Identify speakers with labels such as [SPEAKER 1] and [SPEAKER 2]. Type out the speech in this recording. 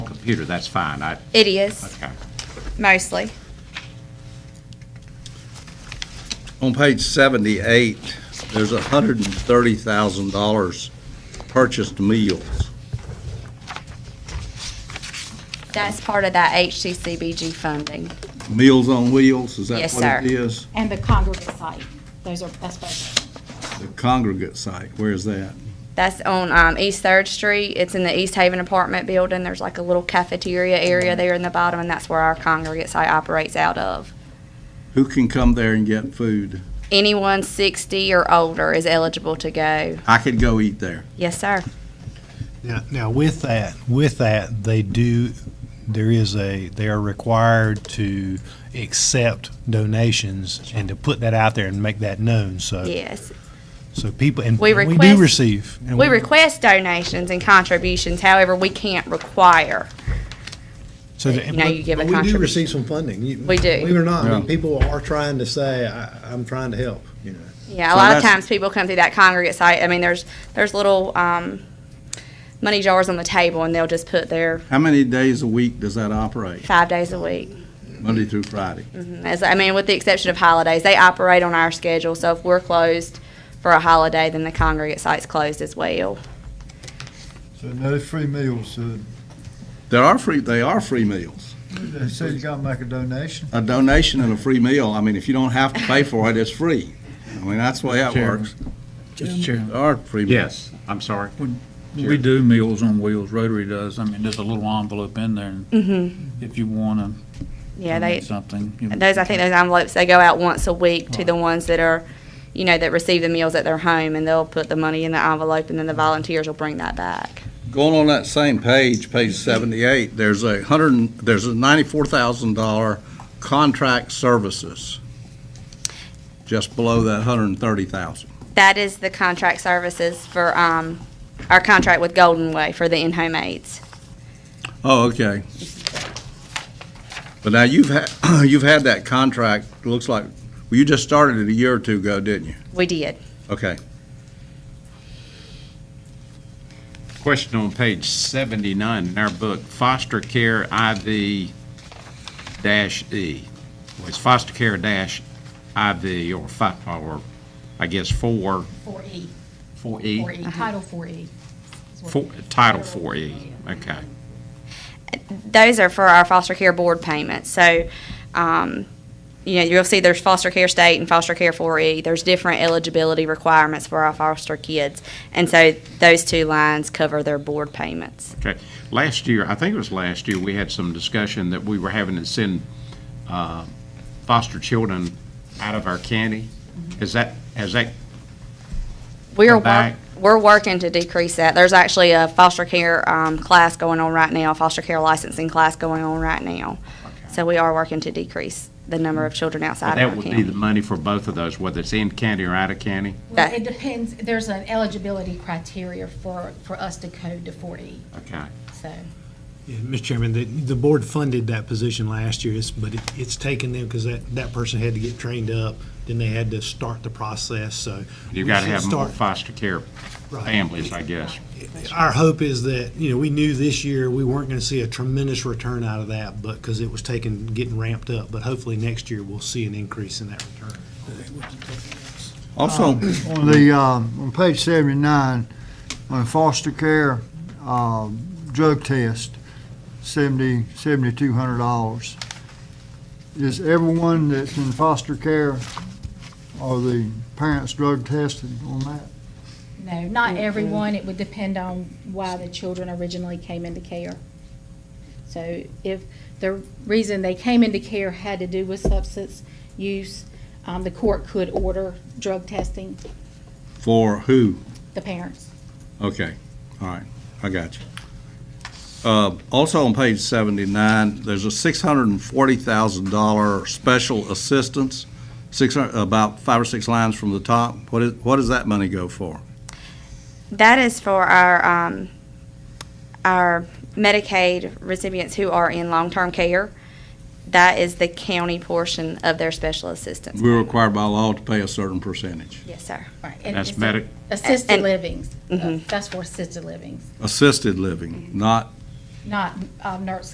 [SPEAKER 1] computer, that's fine. I,
[SPEAKER 2] It is,
[SPEAKER 1] okay.
[SPEAKER 2] mostly.
[SPEAKER 3] On page 78, there's $130,000 purchased meals.
[SPEAKER 2] That's part of that HCCBG funding.
[SPEAKER 3] Meals on Wheels, is that
[SPEAKER 2] Yes,
[SPEAKER 3] what it is?
[SPEAKER 4] And the congregate site, those are, that's both.
[SPEAKER 3] The congregate site, where is that?
[SPEAKER 2] That's on um, East Third Street. It's in the East Haven apartment building. There's like a little cafeteria area there in the bottom, and that's where our congregate site operates out of.
[SPEAKER 3] Who can come there and get food?
[SPEAKER 2] Anyone 60 or older is eligible to go.
[SPEAKER 3] I could go eat there.
[SPEAKER 2] Yes, sir.
[SPEAKER 5] Now, now with that, with that, they do, there is a, they are required to accept donations and to put that out there and make that known, so,
[SPEAKER 2] Yes.
[SPEAKER 5] so people, and
[SPEAKER 2] We
[SPEAKER 5] we do
[SPEAKER 2] request-
[SPEAKER 5] receive. and
[SPEAKER 2] We request donations and contributions. However, we can't require.
[SPEAKER 5] so the-
[SPEAKER 2] You know, you give a
[SPEAKER 6] But We do
[SPEAKER 2] contribution.
[SPEAKER 6] receive some funding. You-
[SPEAKER 2] We do.
[SPEAKER 6] Believe it or not, I mean,
[SPEAKER 3] Yeah.
[SPEAKER 6] people are trying to say, I, I'm trying to help, you know.
[SPEAKER 2] Yeah, a
[SPEAKER 3] So
[SPEAKER 2] lot of
[SPEAKER 3] that's-
[SPEAKER 2] times people come through that congregate site. I mean, there's there's little um, money jars on the table, and they'll just put their
[SPEAKER 3] How many days a week does that operate,
[SPEAKER 2] five days a week.
[SPEAKER 3] Monday through Friday?
[SPEAKER 2] As, I mean, with the exception of holidays, they operate on our schedule. So if we're closed for a holiday, then the congregate site's closed as well.
[SPEAKER 7] So no free meals, uh, so
[SPEAKER 3] There are free, they are free meals.
[SPEAKER 7] they say you gotta make a donation.
[SPEAKER 3] A donation and a free meal, I mean, if you don't have to pay for it, it's free. I mean, that's the way that
[SPEAKER 8] Chairman.
[SPEAKER 3] works.
[SPEAKER 8] Mr. Chairman,
[SPEAKER 3] There are free meals.
[SPEAKER 1] Yes, I'm sorry.
[SPEAKER 8] we do Meals on Wheels, Rotary does. I mean, there's a little envelope in there, and
[SPEAKER 2] Mm-hmm.
[SPEAKER 8] if you want to
[SPEAKER 2] Yeah, they
[SPEAKER 8] donate something. you-
[SPEAKER 2] those I think those envelopes they go out once a week to the ones that are, you know, that receive the meals at their home, and they'll put the money in the envelope, and then the volunteers will bring that back.
[SPEAKER 3] Going on that same page, page seventy-eight, there's a hundred, and- there's a ninety-four thousand dollar contract services. Just below that hundred and thirty thousand.
[SPEAKER 2] That is the contract services for um, our contract with Golden Way for the in-home aides.
[SPEAKER 3] Oh, okay. But now you've had, you've had that contract, it looks like, well, you just started it a year or two ago, didn't you?
[SPEAKER 2] We did.
[SPEAKER 3] Okay.
[SPEAKER 1] Question on page 79 in our book, foster care IV dash E. Was foster care dash IV or fi, or I guess four,
[SPEAKER 4] Four E,
[SPEAKER 1] four
[SPEAKER 4] four
[SPEAKER 1] E?
[SPEAKER 4] E, Title four E. is what-
[SPEAKER 1] Four- Title four E, okay.
[SPEAKER 2] those are for our foster care board payments. So, um, you know, you'll see there's foster care state and foster care 4E. There's different eligibility requirements for our foster kids. And so those two lines cover their board payments.
[SPEAKER 1] Okay. Last year, I think it was last year, we had some discussion that we were having to send uh, foster children out of our county. Is that, has that,
[SPEAKER 2] We're
[SPEAKER 1] Go back.
[SPEAKER 2] work, we're working to decrease that. There's actually a foster care um, class going on right now, foster care licensing class going on right now. So we are working to decrease the number of children outside of
[SPEAKER 1] that
[SPEAKER 2] our
[SPEAKER 1] would be
[SPEAKER 2] county.
[SPEAKER 1] the money for both of those, whether it's in county or out of county?
[SPEAKER 2] That-
[SPEAKER 4] Well, it depends, there's an eligibility criteria for, for us to code to four E,
[SPEAKER 1] Okay.
[SPEAKER 4] so.
[SPEAKER 9] Yeah, Mr. Chairman, the, the board funded that position last year, it's- but it- it's taken them, because that, that person had to get trained up, then they had to start the process, so.
[SPEAKER 1] You've
[SPEAKER 9] we
[SPEAKER 1] got to
[SPEAKER 9] should
[SPEAKER 1] have more
[SPEAKER 9] start-
[SPEAKER 1] foster care
[SPEAKER 9] Right.
[SPEAKER 1] families, I guess.
[SPEAKER 9] Our hope is that, you know, we knew this year, we weren't going to see a tremendous return out of that, but, because it was taken, getting ramped up, but hopefully next year, we'll see an increase in that return.
[SPEAKER 3] Also,
[SPEAKER 7] On the, um, on page seventy-nine, on foster care, um, drug test, seventy, seventy-two hundred dollars. Is everyone that's in foster care, are the parents drug tested on that?
[SPEAKER 4] No,
[SPEAKER 1] Mm-hmm.
[SPEAKER 4] not everyone. It would depend on why the children originally came into care. So if the reason they came into care had to do with substance use, um, the court could order drug testing
[SPEAKER 3] for who?
[SPEAKER 4] the parents.
[SPEAKER 3] Okay, all right, I got you. Uh, Also on page 79, there's a $640,000 special assistance, six, hun- about five or six lines from the top. What is, what does that money go for?
[SPEAKER 2] That is for our, um, our Medicaid recipients who are in long-term care. That is the county portion of their special assistance.
[SPEAKER 3] We're required by law to pay a certain percentage.
[SPEAKER 2] Yes, sir.
[SPEAKER 4] Right. and
[SPEAKER 1] That's
[SPEAKER 4] it's
[SPEAKER 1] medic, Mm-hmm.
[SPEAKER 4] Assisted
[SPEAKER 2] and-
[SPEAKER 4] livings. Uh,
[SPEAKER 2] Mhm.
[SPEAKER 4] That's for assisted livings.
[SPEAKER 3] Assisted living, not
[SPEAKER 4] not, um, nurse